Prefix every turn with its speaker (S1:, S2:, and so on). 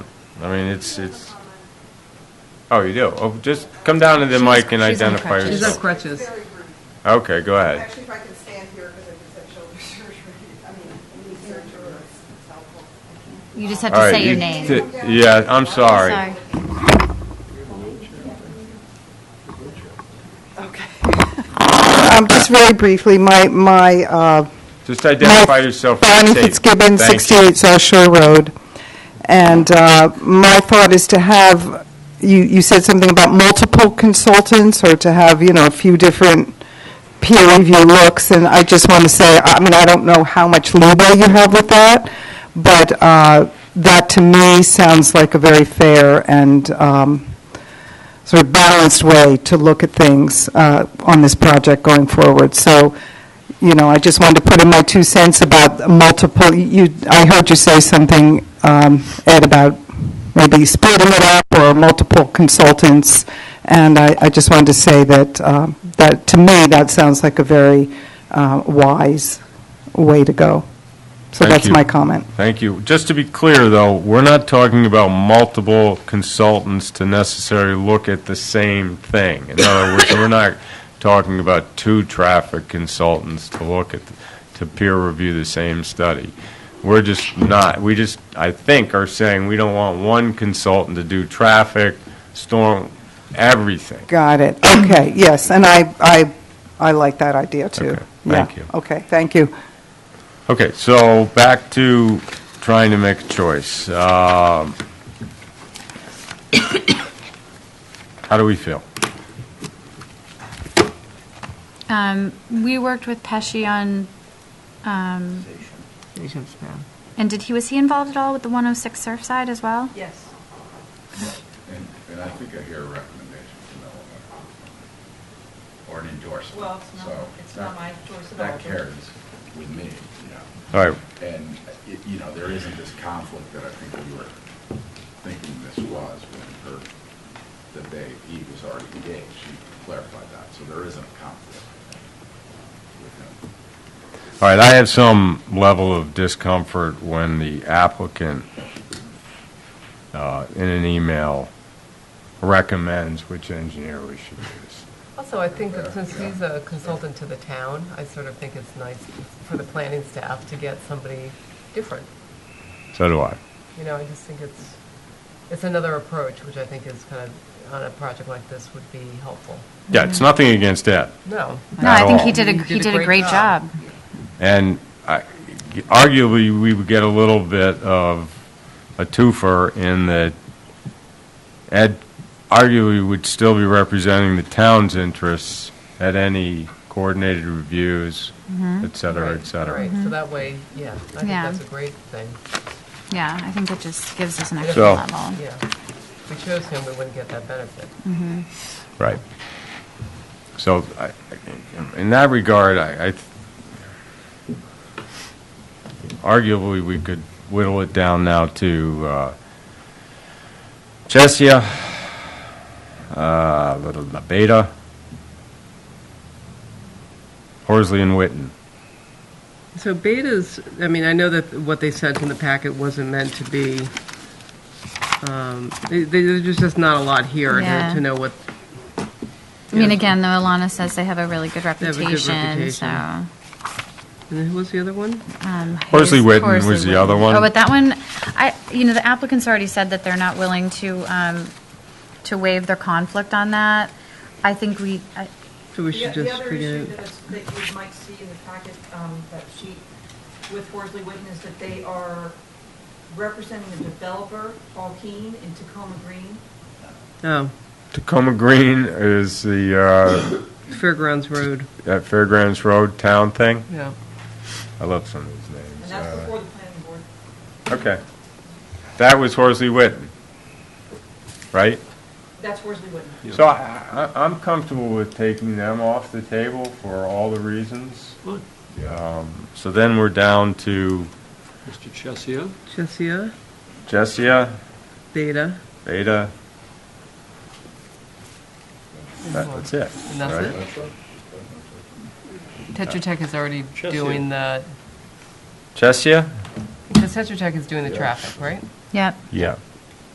S1: I mean, it's, it's, oh, you do? Oh, just come down to the mic and
S2: she's on
S1: identify
S2: crutches.
S3: She's on
S1: yourself.
S3: crutches.
S4: Very rude.
S1: Okay, go ahead.
S4: Actually, if I can stand here, because I just had shoulder surgery, I mean, knee surgery, it's helpful.
S2: You just have
S1: All
S2: to
S1: right,
S2: say your
S1: you
S2: name. Oh,
S1: t- Yeah, I'm sorry.
S2: Sorry.
S5: Um, Just very briefly, my, my, uh,
S1: Just identify yourself for the
S5: Bonnie
S1: tape.
S5: Fitzgibbon,
S1: Thank you.
S5: 68 South Shore Road. And uh, my thought is to have, you, you said something about multiple consultants, or to have, you know, a few different peer review looks, and I just want to say, I mean, I don't know how much leeway you have with that, but uh, that to me sounds like a very fair and um, sort of balanced way to look at things uh, on this project going forward. So, you know, I just wanted to put in my two cents about multiple, you, I heard you say something, um, Ed, about maybe splitting it up or multiple consultants, and I, I just wanted to say that, um, that, to me, that sounds like a very uh, wise way to go. So
S1: Thank
S5: that's
S1: you.
S5: my comment.
S1: Thank you. Just to be clear, though, we're not talking about multiple consultants to necessarily look at the same thing. In other words, we're not talking about two traffic consultants to look at, to peer review the same study. We're just not, we just, I think, are saying we don't want one consultant to do traffic, storm, everything.
S5: Got it, okay, yes, and I, I, I like that idea, too.
S1: Okay,
S5: Yeah.
S1: thank you.
S5: Okay, thank you.
S1: Okay, so back to trying to make a choice. Um, How do we feel?
S2: Um, We worked with Pesci on, um, and did he, was he involved at all with the 106 Surfside as well?
S4: Yes.
S6: And, and I think I hear a recommendation from Eleanor, or an endorsement.
S4: Well, it's not-
S6: So
S4: it's not
S6: that-
S4: my choice at all,
S6: That
S4: but-
S6: carries with me, you know.
S1: All right,
S6: And, it- you know, there isn't this conflict that I think we were thinking this was when her, that they, he was already engaged. She clarified that, so there isn't a conflict with him.
S1: all right, I have some level of discomfort when the applicant, uh, in an email, recommends which engineer we should use.
S3: Also, I think that since he's a consultant to the town, I sort of think it's nice for the planning staff to get somebody different.
S1: So do I.
S3: You know, I just think it's, it's another approach, which I think is kind of, on a project like this, would be helpful.
S1: Yeah, it's nothing against Ed.
S3: No.
S2: No,
S1: Not
S2: I think
S1: all.
S2: he did a, he did a great job.
S1: And I- arguably, we would get a little bit of a twofer in that Ed arguably would still be representing the town's interests at any coordinated reviews, et cetera, et
S3: Right,
S1: cetera.
S3: Right, so that way, yeah, I think
S2: Yeah.
S3: that's a great thing,
S2: Yeah, I think that just gives us an extra
S1: So-
S2: level.
S3: yeah. If we chose him, we wouldn't get that benefit.
S1: Right. So I- in that regard, I, I th- arguably, we could whittle it down now to uh, Chesia, uh, little La Beta, Horsley and Witten.
S7: So betas, I mean, I know that what they sent in the packet wasn't meant to be, um, they- they- there's just there's not a lot here
S2: Yeah.
S7: to- to know what,
S2: I mean, again, though, Alana says they have a really good
S3: a good
S2: reputation,
S7: reputation.
S2: so.
S7: and then who was the other one?
S2: um,
S1: Horsley
S2: Hayes-
S1: Witten
S2: Horsley
S1: was the
S2: Witten.
S1: other one.
S2: Oh, but that one, I, you know, the applicants already said that they're not willing to, um, to waive their conflict on that. I think we, I-
S7: So we
S4: The
S7: should
S4: the
S7: just
S4: other
S7: forget
S4: issue
S7: it.
S4: that is- that you might see in the packet, um, that sheet with Horsley Witten is that they are representing the developer, Paul Keen, in Tacoma Green.
S7: Oh,
S1: Tacoma Green is the, uh,
S7: Fairgrounds Road,
S1: that Fairgrounds Road Town thing.
S7: yeah.
S1: I love some of these
S4: And
S1: names.
S4: that's
S1: Uh,
S4: before the planning board.
S1: Okay. That was Horsley Witten, right?
S4: That's Horsley Witten.
S1: So I, I, I'm comfortable with taking them off the table for all the reasons. Um, So then we're down to
S8: Mr. Chesia?
S7: Chesia,
S1: Jessia,
S7: Beta,
S1: Beta. That- That's it.
S3: And that's
S1: right?
S3: it?
S7: Tetra Tech is already
S8: Chesia.
S7: doing the,
S1: Jessia?
S3: because Tetra Tech is doing the traffic, right?
S2: yep,
S1: Yeah.